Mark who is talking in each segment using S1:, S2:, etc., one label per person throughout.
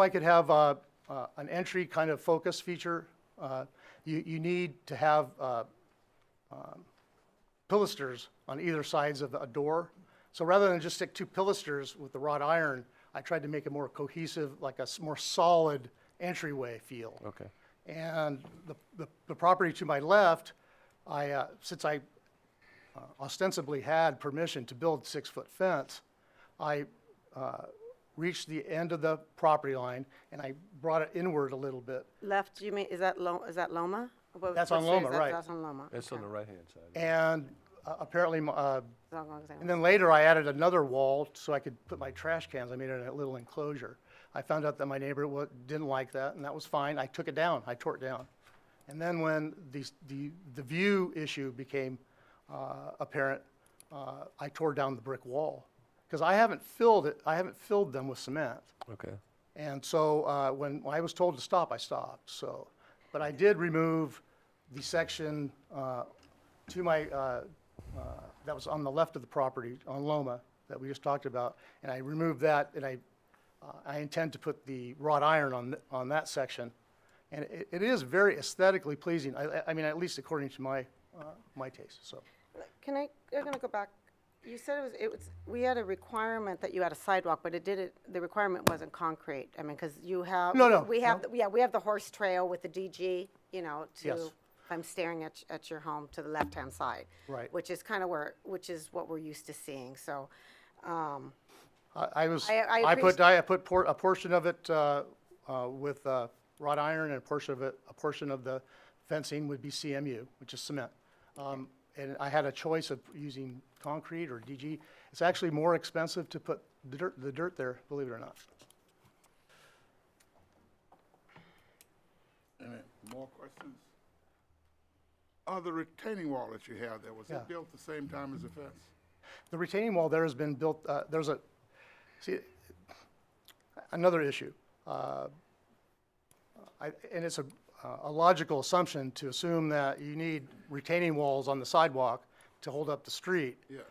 S1: I could have uh, uh, an entry kind of focus feature. Uh, You, you need to have uh, um, pilasters on either sides of a door. So rather than just stick two pilasters with the wrought iron, I tried to make a more cohesive, like a s- more solid entryway feel.
S2: Okay.
S1: And the, the, the property to my left, I, uh, since I uh, ostensibly had permission to build six-foot fence, I, uh, reached the end of the property line and I brought it inward a little bit.
S3: Left, you mean, is that Lo, is that Loma? What-
S1: That's
S3: what
S1: on
S3: street is
S1: Loma,
S3: that?
S1: right.
S3: That's on Loma.
S2: It's on the right-hand side.
S1: And uh, apparently, my- uh,
S3: It's on Loma, same
S1: and
S3: way.
S1: then later I added another wall so I could put my trash cans. I made it a little enclosure. I found out that my neighbor wa- didn't like that and that was fine. I took it down. I tore it down. And then when the, s- the, the view issue became, uh, apparent, uh, I tore down the brick wall. Cause I haven't filled it, I haven't filled them with cement.
S2: Okay.
S1: And so uh, when I was told to stop, I stopped. So, but I did remove the section uh, to my, uh, uh, that was on the left of the property on Loma that we just talked about. And I removed that and I, uh, I intend to put the wrought iron on, th- on that section. And it, it is very aesthetically pleasing. I, I- I mean, at least according to my, uh, my taste, so.
S3: Can I, I'm gonna go back. You said it was, it was, we had a requirement that you had a sidewalk, but it didn't, the requirement wasn't concrete. I mean, because you have.
S1: No, no,
S3: We have, the- yeah, we have the horse trail with the DG, you know,
S1: Yes.
S3: to, I'm staring at, at your home to the left-hand side.
S1: Right.
S3: Which is kind of where, which is what we're used to seeing, so, um,
S1: I, I was,
S3: I- I
S1: I put,
S3: appreciate-
S1: I put por- a portion of it, uh, uh, with, uh, wrought iron and a portion of it, a portion of the fencing would be CMU, which is cement. Um, and I had a choice of using concrete or DG. It's actually more expensive to put the dirt, the dirt there, believe it or not.
S4: Any More questions? Uh, the retaining wall that you have there, was
S1: Yeah.
S4: it built the same time as the fence?
S1: The retaining wall there has been built, uh, there's a, see, another issue. Uh, I- And it's a a logical assumption to assume that you need retaining walls on the sidewalk to hold up the street.
S4: Yeah,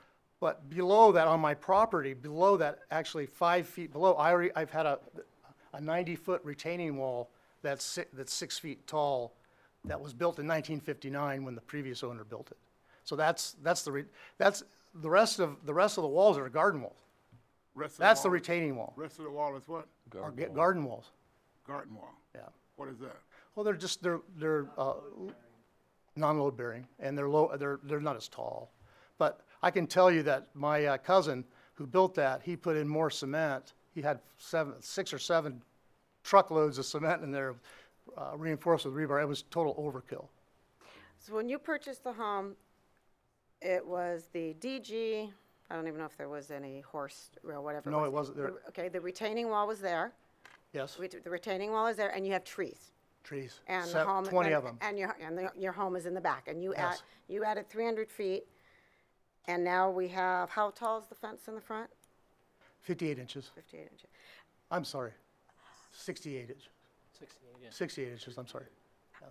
S1: But below that, on my property, below that, actually five feet below, I already, I've had a, a ninety-foot retaining wall that's si- that's six feet tall, that was built in nineteen fifty-nine when the previous owner built it. So that's, that's the, re that's, the rest of, the rest of the walls are garden walls.
S4: rest of the wall.
S1: That's the retaining wall,
S4: Rest of the wall is what?
S1: or ga- garden walls,
S4: Garden wall.
S1: yeah.
S4: What is that?
S1: Well, they're just, they're, they're, uh, non-load bearing, and they're low, they're, they're not as tall. But I can tell you that my uh, cousin who built that, he put in more cement. He had seven, six or seven truckloads of cement in there, uh, reinforced with rebar. It was total overkill.
S3: So when you purchased the home, it was the DG, I don't even know if there was any horse or whatever.
S1: No,
S3: was.
S1: it wasn't there.
S3: The- Okay, the retaining wall was there,
S1: Yes,
S3: Ret- the retaining wall is there, and you have trees.
S1: trees,
S3: And the
S1: Sev-
S3: home.
S1: twenty
S3: and-
S1: of them.
S3: And your, and the- your home is in the back, and you add,
S1: Yes.
S3: you added three hundred feet, and now we have, how tall is the fence in the front?
S1: Fifty-eight inches.
S3: Fifty-eight inches.
S1: I'm sorry. Sixty-eight inches. Sixty-eight inches, I'm sorry.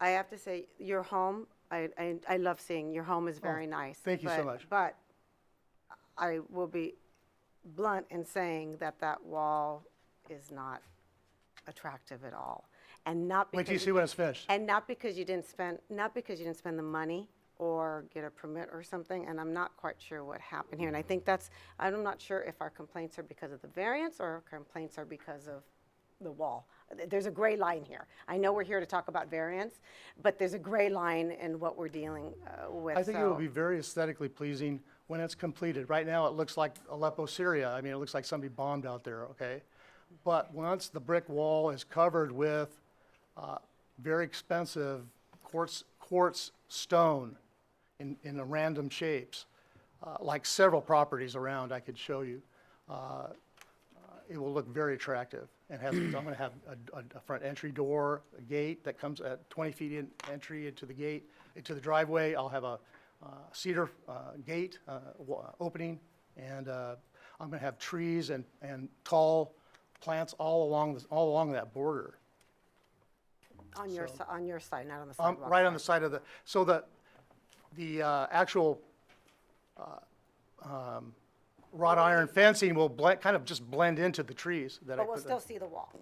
S3: I have to say, your home, I, I, I love seeing, your home is very nice.
S1: Oh, thank you so
S3: but-
S1: much.
S3: But I will be blunt in saying that that wall is not attractive at all. And not because.
S1: Wait till you see when it's finished.
S3: And not because you didn't spend, not because you didn't spend the money or get a permit or something, and I'm not quite sure what happened here. And I think that's, I'm not sure if our complaints are because of the variance or our complaints are because of the wall. Th- There's a gray line here. I know we're here to talk about variance, but there's a gray line in what we're dealing uh, with.
S1: I think it will
S3: so-
S1: be very aesthetically pleasing when it's completed. Right now, it looks like Aleppo, Syria. I mean, it looks like somebody bombed out there, okay? But once the brick wall is covered with uh, very expensive quartz, quartz stone in, in the random shapes, uh, like several properties around I could show you, uh, it will look very attractive. And has, I'm gonna have a, a, a front entry door, a gate that comes at twenty feet in, entry into the gate, into the driveway. I'll have a uh, cedar, uh, gate, uh, wa- opening. And, uh, I'm gonna have trees and, and tall plants all along, this- all along that border.
S3: On your, si- on your side, not on the
S1: Um,
S3: sidewalk.
S1: right on the side of the, so the, the, uh, actual, uh, um, wrought iron fencing will blend, kind of just blend into the trees that I
S3: But we'll
S1: put
S3: still
S1: there.
S3: see the wall.